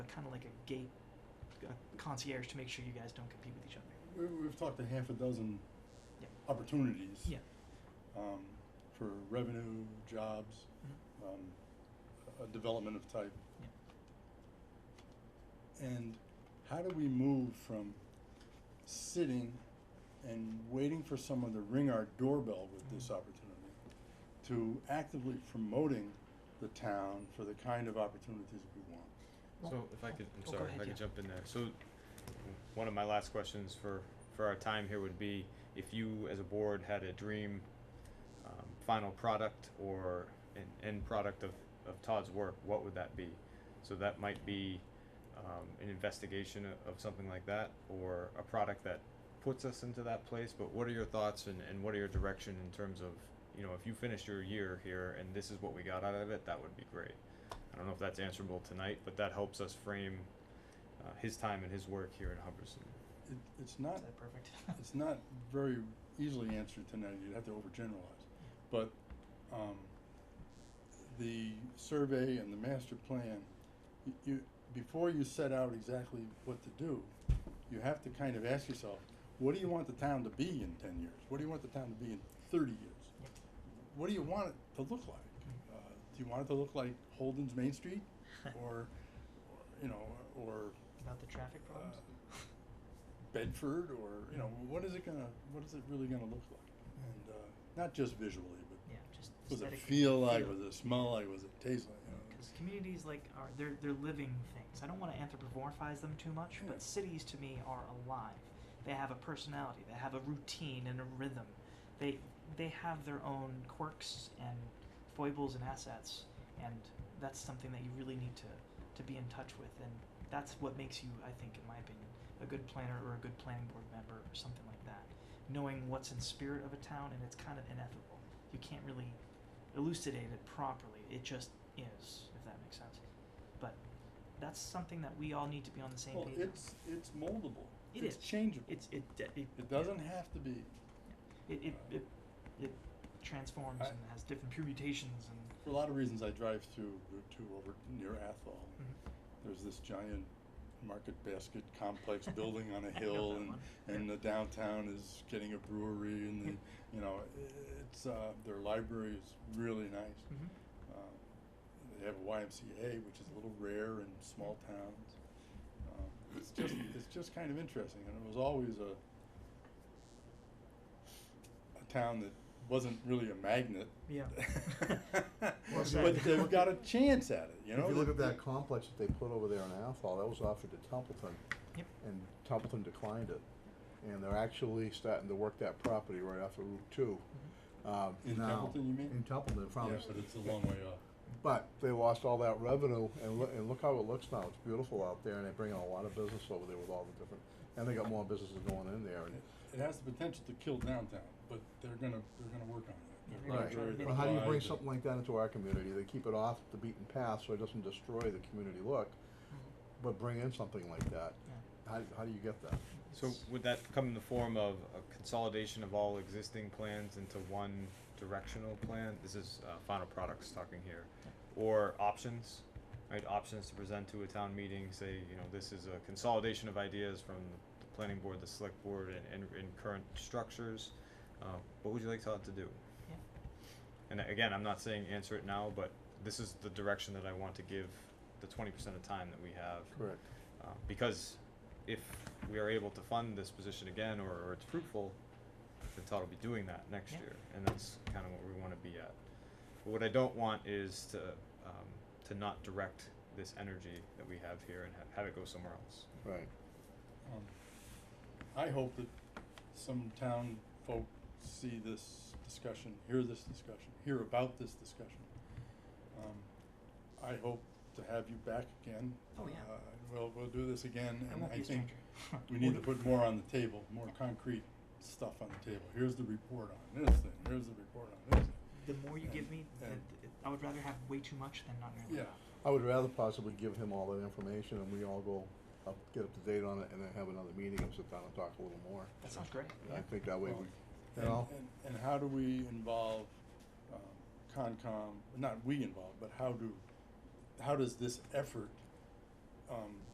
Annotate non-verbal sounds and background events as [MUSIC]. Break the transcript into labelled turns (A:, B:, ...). A: kind of like a gate uh, concierge to make sure you guys don't compete with each other.
B: We, we've talked to half a dozen
A: Yeah.
B: opportunities.
A: Yeah.
B: Um, for revenue, jobs,
A: Mm-hmm.
B: um, a- a development of type. And how do we move from sitting and waiting for someone to ring our doorbell with this
A: Mm-hmm.
B: opportunity to actively promoting the town for the kind of opportunities we want?
C: So if I could, I'm
A: Oh, go
C: sorry,
A: ahead,
C: if I
A: yeah.
C: could jump in there. So w- one of my last questions for, for our time here would be if you as a board had a dream um, final product or an end product of, of Todd's work, what would that be? So that might be um, an investigation o- of something like that or a product that puts us into that place. But what are your thoughts and, and what are your direction in terms of, you know, if you finished your year here and this is what we got out of it, that would be great. I don't know if that's answerable tonight, but that helps us frame uh, his time and his work here in Hubbardston.
B: It, it's not
A: Is that perfect? [LAUGHS]
B: it's not very easily answered tonight, you'd have to overgeneralize, but, um, the survey and the master plan, y- you, before you set out exactly what to do, you have to kind of ask yourself, what do you want the town to be in ten years? What do you want the town to be in thirty years? What do you want it to look like? Uh, do you want it to look like Holden's Main Street, or, or, you know, or
A: About the traffic problems?
B: uh, Bedford or you know what is it gonna what is it really gonna look like and uh, not just visually
A: yeah, just
B: but was it
A: aesthetic
B: feel like was it smell like was it taste like you know?
A: Because communities like are they're they're living things. I don't want to anthropomorphize them too much,
B: Yeah.
A: but cities to me are alive. They have a personality. They have a routine and a rhythm. They they have their own quirks and foibles and assets, and that's something that you really need to to be in touch with. And that's what makes you, I think, in my opinion, a good planner or a good planning board member or something like that. Knowing what's in spirit of a town, and it's kind of ineffable. You can't really elucidate it properly. It just is, if that makes sense. But that's something that we all need to be on the same
B: well
A: page. on.
B: it's it's moldable
A: It
B: it's
A: is.
B: changeable
A: it's it it, it,
B: it doesn't have to be
A: it it, it, it transforms
B: I-
A: and has different permutations and
B: for a lot of reasons I drive through Route Two over near Athol
A: Hmm. mm-hmm,
B: there's this giant market basket
A: [LAUGHS]
B: complex building on
A: I know
B: a hill
A: that
B: and
A: one.
B: and the downtown is getting a brewery and
A: [LAUGHS]
B: the you know it's uh, their library is really nice
A: Mhm.
B: Uh, They have a YMCA, which is a little rare in small towns. Um, It's
D: [CLEARS THROAT]
B: just, it's just kind of interesting, and it was always a, a town that wasn't really a magnet. [LAUGHS]
A: Yeah.
D: Well
B: But
D: said.
B: they've got a chance at it, you know?
D: If you look at
B: They-
D: that complex that they put over there in Athol, that was offered to Templeton.
A: Yep.
D: And Templeton declined it. And they're actually starting to work that property right off of Route Two. Um,
B: In
D: now-
B: Templeton, you mean?
D: In Templeton,
B: Yeah,
D: from,
B: but it's a long way off.
D: but they lost all that revenue and look, and look how it looks now. It's beautiful out there and they bring in a lot of business over there with all the different, and they got more businesses going in there and.
B: It has the potential to kill downtown, but they're gonna, they're gonna work on it. They're gonna
A: Right.
B: try to
D: But how do you
B: apply
D: bring
B: the-
D: something like that into our community? They keep it off the beaten path so it doesn't destroy the community look,
B: Mm-hmm.
D: but bring in something like that. How, how do you get that?
C: So would that come in the form of a consolidation of all existing plans into one directional plan? This is uh, final products talking here, or options, right? Options to present to a town meeting. Say, you know, this is a consolidation of ideas from the planning board, the select board, and and, and current structures. Uh, what would you like Todd to do?
A: Yeah.
C: And again, I'm not saying answer it now, but this is the direction that I want to give the 20% of time that we have
D: Correct.
C: uh, because if we are able to fund this position again or, or it's fruitful, then Todd will be doing that next
A: Yeah.
C: year, and that's kind of what we want to be at. But what I don't want is to um, to not direct this energy that we have here and ha- have it go somewhere else.
D: Right.
B: Um, I hope that some town folk see this discussion, hear this discussion, hear about this discussion. Um, I hope to have you back again.
A: Oh, yeah.
B: Uh, We'll, we'll do this again,
A: I
B: and
A: won't
B: I
A: be a
B: think
A: stranger. [LAUGHS]
B: we need to put more on the table, more concrete stuff on the table. Here's the report on this thing, here's the report on this. thing.
A: the more you give
B: and-
A: me, the,
B: and-
A: the- I would rather have way too much than not nearly
B: Yeah.
A: enough.
D: I would rather possibly give him all that information and we all go up, get up to date on it and then have another meeting and sit down and talk a little more.
A: That sounds great.
D: I
A: Yeah.
D: think that way
B: Well,
D: we, you
B: And,
D: know,
B: and, and how do we involve, um, Concom, not we involve, but how do, how does this effort, uh, um,